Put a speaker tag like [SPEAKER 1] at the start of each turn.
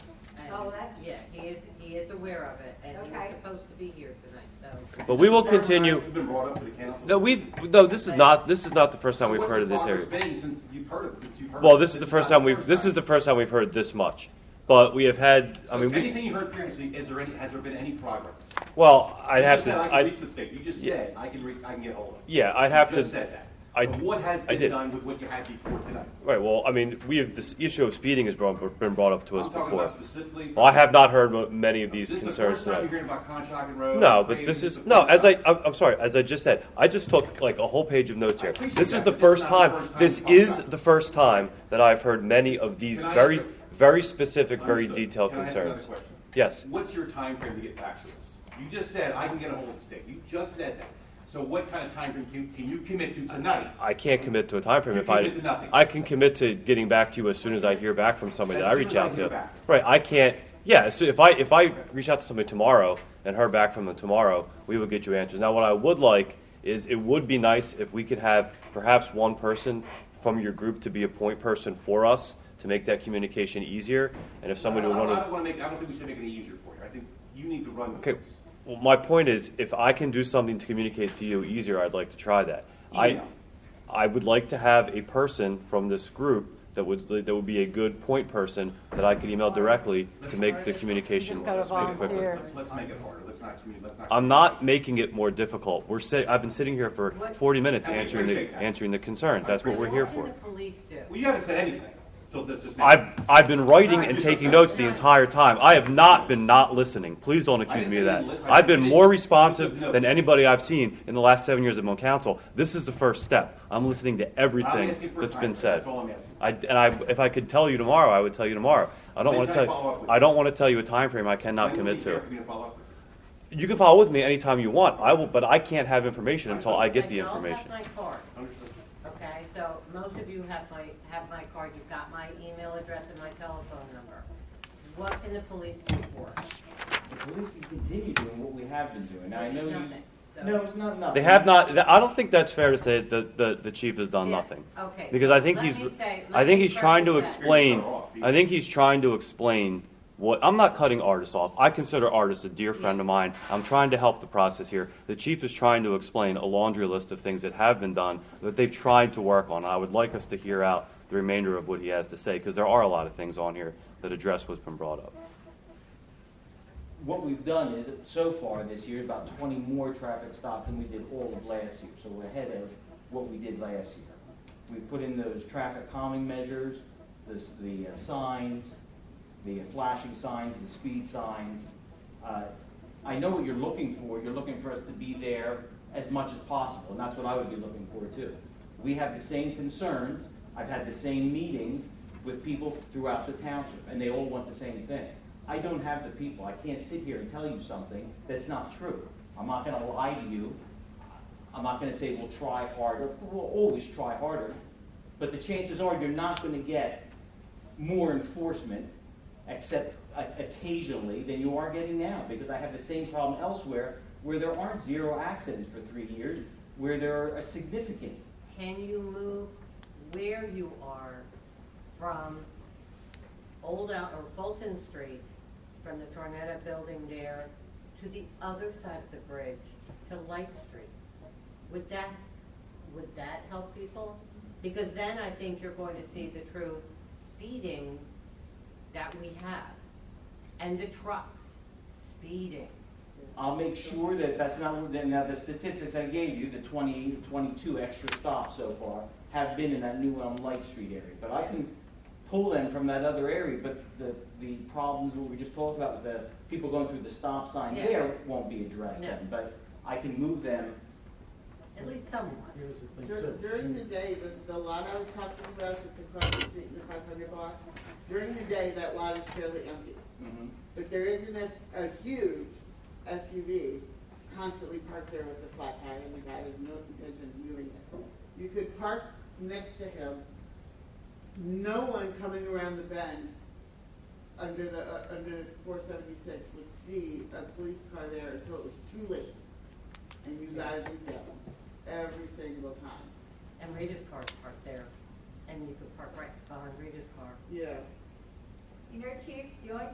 [SPEAKER 1] Oh, that's,
[SPEAKER 2] Yeah, he is, he is aware of it, and he was
[SPEAKER 1] Okay.
[SPEAKER 2] supposed to be here tonight, so.
[SPEAKER 3] But we will continue.
[SPEAKER 4] It's been brought up to the council.
[SPEAKER 3] No, we've no. This is not. This is not the first time we've
[SPEAKER 4] What's
[SPEAKER 3] heard
[SPEAKER 4] the
[SPEAKER 3] of this area.
[SPEAKER 4] progress been since you've heard of, since you've heard?
[SPEAKER 3] Well,
[SPEAKER 4] of
[SPEAKER 3] this is the first
[SPEAKER 4] not
[SPEAKER 3] time we've. This is the first time we've heard this much. But we have had. I mean, we,
[SPEAKER 4] Anything you heard previously, is there any, has there been any progress?
[SPEAKER 3] well, I'd have
[SPEAKER 4] You just
[SPEAKER 3] to.
[SPEAKER 4] said I can
[SPEAKER 3] I,
[SPEAKER 4] reach the state, you just
[SPEAKER 3] Yeah.
[SPEAKER 4] said, I can re, I can get hold of it.
[SPEAKER 3] yeah, I'd have
[SPEAKER 4] You
[SPEAKER 3] to.
[SPEAKER 4] just said that.
[SPEAKER 3] I-
[SPEAKER 4] But what has
[SPEAKER 3] I
[SPEAKER 4] been
[SPEAKER 3] did.
[SPEAKER 4] done with what you had before tonight?
[SPEAKER 3] Right. Well, I mean, we have this issue of speeding has brought, been brought up to us
[SPEAKER 4] I'm talking
[SPEAKER 3] before.
[SPEAKER 4] about specifically.
[SPEAKER 3] Well, I have not heard mo- many of these
[SPEAKER 4] This is the
[SPEAKER 3] concerns
[SPEAKER 4] first time
[SPEAKER 3] tonight.
[SPEAKER 4] you're hearing about Conshohocken Road.
[SPEAKER 3] No, but
[SPEAKER 4] Hey,
[SPEAKER 3] this is
[SPEAKER 4] the
[SPEAKER 3] no.
[SPEAKER 4] first
[SPEAKER 3] As I,
[SPEAKER 4] time.
[SPEAKER 3] I'm, I'm sorry. As I just said, I just took like a whole page of notes here.
[SPEAKER 4] appreciate
[SPEAKER 3] This is
[SPEAKER 4] that,
[SPEAKER 3] the
[SPEAKER 4] but this
[SPEAKER 3] first
[SPEAKER 4] is not the
[SPEAKER 3] time.
[SPEAKER 4] first
[SPEAKER 3] This
[SPEAKER 4] time you've
[SPEAKER 3] is
[SPEAKER 4] talked about
[SPEAKER 3] the first time that I've heard many of these
[SPEAKER 4] Can I
[SPEAKER 3] very,
[SPEAKER 4] answer-
[SPEAKER 3] very specific, very
[SPEAKER 4] Understood.
[SPEAKER 3] detailed
[SPEAKER 4] Can I ask another
[SPEAKER 3] concerns.
[SPEAKER 4] question?
[SPEAKER 3] Yes.
[SPEAKER 4] What's your time frame to get back to us? You just said, I can get a hold of the state, you just said that. So what kind of time frame can, can you commit to tonight?
[SPEAKER 3] I can't commit to a time frame
[SPEAKER 4] You
[SPEAKER 3] if I.
[SPEAKER 4] commit to nothing.
[SPEAKER 3] I can commit to getting back to you as soon as I hear back from somebody
[SPEAKER 4] As
[SPEAKER 3] that I
[SPEAKER 4] soon
[SPEAKER 3] reach
[SPEAKER 4] as I
[SPEAKER 3] out
[SPEAKER 4] hear
[SPEAKER 3] to.
[SPEAKER 4] back.
[SPEAKER 3] Right. I can't. Yeah. So if I if I reach out to somebody tomorrow and heard back from them tomorrow, we will get you answers. Now, what I would like is it would be nice if we could have perhaps one person from your group to be a point person for us to make that communication easier. And if somebody would
[SPEAKER 4] I don't-
[SPEAKER 3] want to.
[SPEAKER 4] I don't wanna make, I don't think we should make it any easier for you, I think you need to run with
[SPEAKER 3] Okay,
[SPEAKER 4] this.
[SPEAKER 3] well, my point is, if I can do something to communicate to you easier, I'd like to try that. I,
[SPEAKER 4] Email.
[SPEAKER 3] I would like to have a person from this group that would, that would be a good point person that I could email directly to make the communication
[SPEAKER 5] Just gotta
[SPEAKER 3] quicker.
[SPEAKER 4] Let's make it harder.
[SPEAKER 5] volunteer.
[SPEAKER 4] Let's, let's make it harder, let's not, commu- let's not.
[SPEAKER 3] I'm not making it more difficult. We're sit, I've been sitting here for
[SPEAKER 2] What-
[SPEAKER 3] forty minutes
[SPEAKER 4] And we
[SPEAKER 3] answering the,
[SPEAKER 4] appreciate that.
[SPEAKER 3] answering the concerns. That's what we're here
[SPEAKER 2] What
[SPEAKER 3] for.
[SPEAKER 2] can the police do?
[SPEAKER 4] Well, you haven't said anything, so that's just.
[SPEAKER 3] I've, I've been writing and taking notes the entire time. I have not been not listening. Please don't accuse me of that. I've been more responsive than anybody I've seen in the last seven years of Mon Council. This is the first step. I'm listening to everything that's been said.
[SPEAKER 4] That's all I'm asking.
[SPEAKER 3] I, and I, if I could tell you tomorrow, I would tell you tomorrow. I don't want to tell you, I don't want to tell you a time frame I cannot
[SPEAKER 4] When would
[SPEAKER 3] commit
[SPEAKER 4] it be fair
[SPEAKER 3] to.
[SPEAKER 4] for me to follow up with you?
[SPEAKER 3] You can follow with me anytime you want. I will, but I can't have information until I get the
[SPEAKER 2] I don't
[SPEAKER 3] information.
[SPEAKER 2] have my card,
[SPEAKER 4] Understood.
[SPEAKER 2] okay, so most of you have my, have my card, you've got my email address and my telephone number. What can the police do for us?
[SPEAKER 6] The police can continue doing what we have been doing. Now, I know you.
[SPEAKER 2] Nothing, so-
[SPEAKER 6] No, it's not nothing.
[SPEAKER 3] They have not, I don't think that's fair to say that the, the chief has done
[SPEAKER 2] Yeah,
[SPEAKER 3] Uh, nothing.
[SPEAKER 2] Okay.
[SPEAKER 3] Because
[SPEAKER 2] so
[SPEAKER 3] I think
[SPEAKER 2] let
[SPEAKER 3] he's,
[SPEAKER 2] me say-
[SPEAKER 3] I
[SPEAKER 2] let
[SPEAKER 3] think
[SPEAKER 2] me
[SPEAKER 3] he's trying to
[SPEAKER 2] preface that.
[SPEAKER 3] explain.
[SPEAKER 4] You're better off.
[SPEAKER 3] I think he's trying to explain what. I'm not cutting artists off. I consider artists a dear friend of mine. I'm trying to help the process here. The chief is trying to explain a laundry list of things that have been done that they've tried to work on. I would like us to hear out the remainder of what he has to say because there are a lot of things on here that address what's been brought up.
[SPEAKER 6] What we've done is, so far this year, about twenty more traffic stops than we did all of last year. So we're ahead of what we did last year. We've put in those traffic calming measures, the, s- the uh, signs, the flashing signs, the speed signs. Uh, I know what you're looking for. You're looking for us to be there as much as possible, and that's what I would be looking for too. We have the same concerns. I've had the same meetings with people throughout the township, and they all want the same thing. I don't have the people. I can't sit here and tell you something that's not true. I'm not gonna lie to you. I'm not gonna say we'll try harder. We'll always try harder. But the chances are you're not gonna get more enforcement, except uh, occasionally, than you are getting now, because I have the same problem elsewhere, where there aren't zero accidents for three years, where there are significant.
[SPEAKER 2] Can you move where you are from Old Al, or Fulton Street, from the Tornetta Building there, to the other side of the bridge, to Light Street? Would that, would that help people? Because then I think you're going to see the true speeding that we have, and the trucks speeding.
[SPEAKER 6] I'll make sure that that's not, then now the statistics I gave you, the 20, 22 extra stops so far, have been in that New Elm Light Street area. But I can pull them from that other area, but the, the problems what we just talked about, with the people going through the stop sign
[SPEAKER 2] Yeah.
[SPEAKER 6] there won't be addressed
[SPEAKER 2] No.
[SPEAKER 6] then. But I can move them
[SPEAKER 2] At least somewhat.
[SPEAKER 7] Here's the thing
[SPEAKER 8] Dur-
[SPEAKER 7] too.
[SPEAKER 8] During the day, the, the lot I was talking about, that's across the street in the five hundred block, during the day, that lot is fairly empty.
[SPEAKER 2] Mm-hmm.
[SPEAKER 6] Mhm.
[SPEAKER 8] But there isn't a, a huge SUV constantly parked there with a flat tire and the guy has no intention of moving it. You could park next to him, no one coming around the bend under the, uh, under four seventy-six would see a police car there until it was too late. And you guys would get them every single time.
[SPEAKER 2] And Rita's car's parked there, and you could park right behind Rita's car.
[SPEAKER 8] Yeah.
[SPEAKER 1] you know, Chief, the only